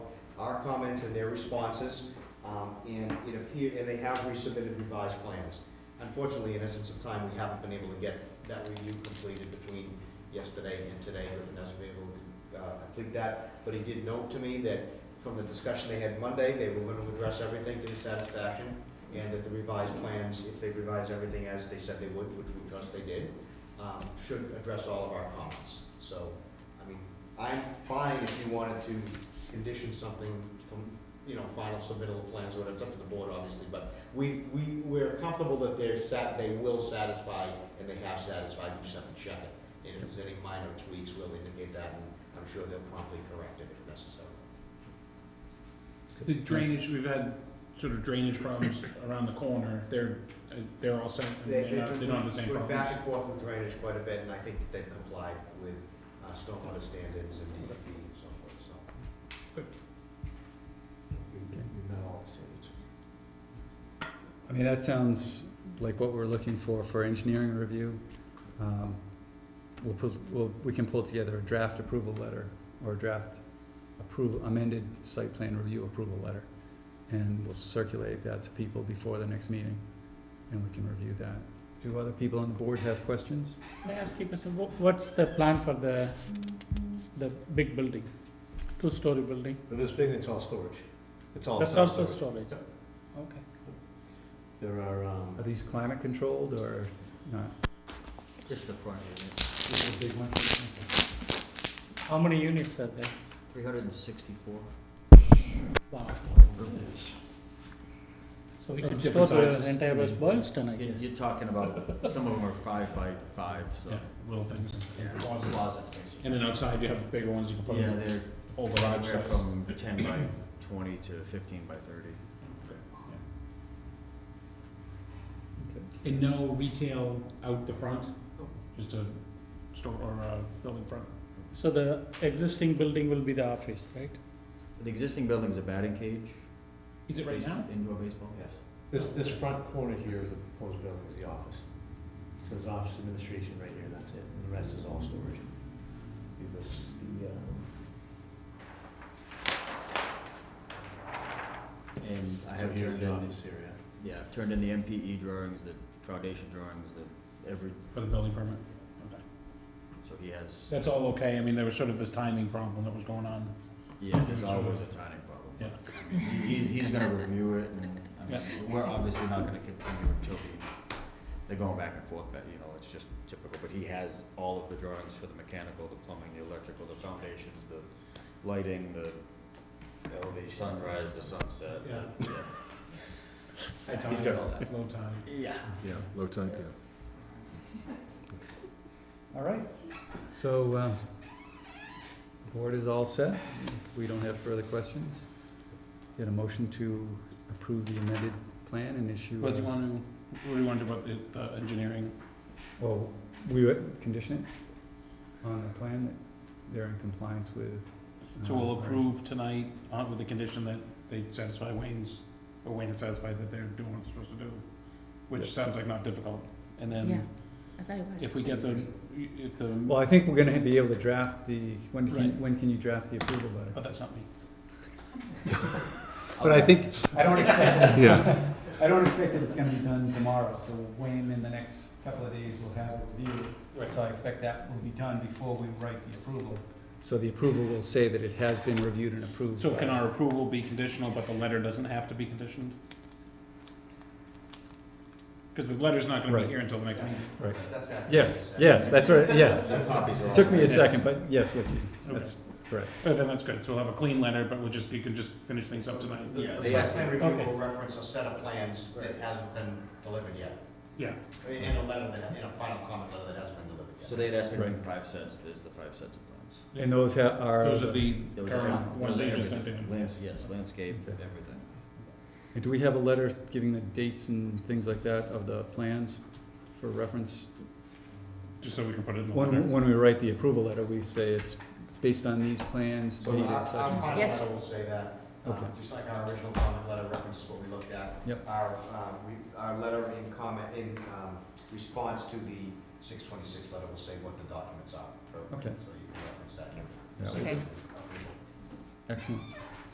our comments and their responses, um, and it appear, and they have resubmitted revised plans. Unfortunately, in essence of time, we haven't been able to get that review completed between yesterday and today. Griffin hasn't been able to uh, complete that, but he did note to me that from the discussion they had Monday, they were gonna address everything to his satisfaction, and that the revised plans, if they revise everything as they said they would, which we trust they did, um, should address all of our comments. So, I mean, I'm fine if you wanted to condition something from, you know, final submittal of plans, or whatever, it's up to the board, obviously, but we, we, we're comfortable that they're sat, they will satisfy, and they have satisfied, we just have to check it. And if there's any minor tweaks, we'll indicate that, and I'm sure they'll promptly correct it if necessary. The drainage, we've had sort of drainage problems around the corner, they're, uh, they're all set, and They, they're they not, they don't have the same went back problems. and forth with drainage quite a bit, and I think that they've complied with uh, stormwater standards and DEP and so forth, so. I mean, that sounds like what we're looking for for engineering review. Um, We'll, put- we'll, we can pull together a draft approval letter or a draft approval, amended site plan review approval letter. And we'll circulate that to people before the next meeting and we can review that. Do other people on the board have questions? May I ask you a question? Wha- What's the plan for the, the big building, two-story building? For this building, it's all storage. It's all That's also self-storage. storage. Yep. Okay. There are, um, Are these climate controlled or not? Just the front unit, This is a big one. How many units are there? three hundred and sixty-four. Wow. You're, So we Of could store different the sizes. Mm. entire West Boylston, I guess. you're talking about, some of them are five by five, Yeah, so. little things, Yeah, closets. Closets. basically. And then outside, you have the bigger ones, you can put Yeah, in they're whole garage anywhere size. from ten by twenty to fifteen by thirty. And no retail out the front, just a store or a building front. So the existing building will be the office, right? The existing building's a batting cage. Is it right base- now? Indoor baseball, yes. this, this front corner here of the proposed building is the office. So there's office administration right here, that's it. And the rest is all storage. Do This, the, um, uh, And I so have here's turned the in, office area. yeah, I've turned in the MPE E drawings, the foundation drawings, the every, For the building permit? Okay. so he has, That's all okay, I mean, there was sort of this timing problem that was going on. yeah, there's always a tiny problem. Yeah. He's, he's gonna review it, and, I mean, Yeah. we're obviously not gonna continue until he, they're going back and forth, but, you know, it's just typical, but he has all of the drawings for the mechanical, the plumbing, the electrical, the foundations, the lighting, the, you know, the sunrise, the sunset, Yeah. the- yeah. He's got all that. Low tide. Yeah. Yeah, low tide, yeah. All right, so, uh, the board is all set, we don't have further questions. Get a motion to approve the amended plan and issue. What do you want to, what do you want to do about the, the engineering? Well, oh, we would condition it on the plan that they're in compliance with. uh, So we'll approve tonight uh, with the condition that they satisfy Wayne's, or Wayne is satisfied that they're doing what they're supposed to do, which Yes. sounds like not difficult. And Yeah, then I thought it was. if we get the, if the, Well, I think we're gonna be able to draft the, when Right. can, when can you draft the approval letter? oh, that's not me. But I think, I don't expect, Yeah. I don't expect that it's gonna be done tomorrow, so Wayne, in the next couple of days, will have it reviewed. So I expect that will be done before we write the approval. So the approval will say that it has been reviewed and approved. So can our approval be conditional, but the letter doesn't have to be conditioned? Because the letter's not gonna be Right. here until the next meeting. Right. That's after. Yes, yes, that's right, yes. Copies are all- Took me a second, but yes, with you. That's correct. But Oh, then that's good, so we'll have a clean letter, but we'll just, you can just finish things up tonight. The Yeah. the site plan review Okay. will reference a set of plans that hasn't been delivered yet, Yeah, and a letter that, and a final comment letter that hasn't been delivered yet. So they'd asked me to bring Right. five sets, there's the five sets of plans. And those ha- are. those are the Those are- current ones those are that you just sent everything. in. Lands- Yes, landscape, Okay. everything. And Do we have a letter giving the dates and things like that of the plans for reference? Just so we can put it in the letter. When, when we write the approval letter, we say it's based on these plans, So our, dated our such and such. final Yes. letter will say that, um, Okay. just like our original comment letter references what we looked at. Yep. Our, um, we, our letter in comment, in, um, response to the six twenty-six letter will say what the documents are. Okay. So you can reference that. Yeah. So Okay. you can- Excellent.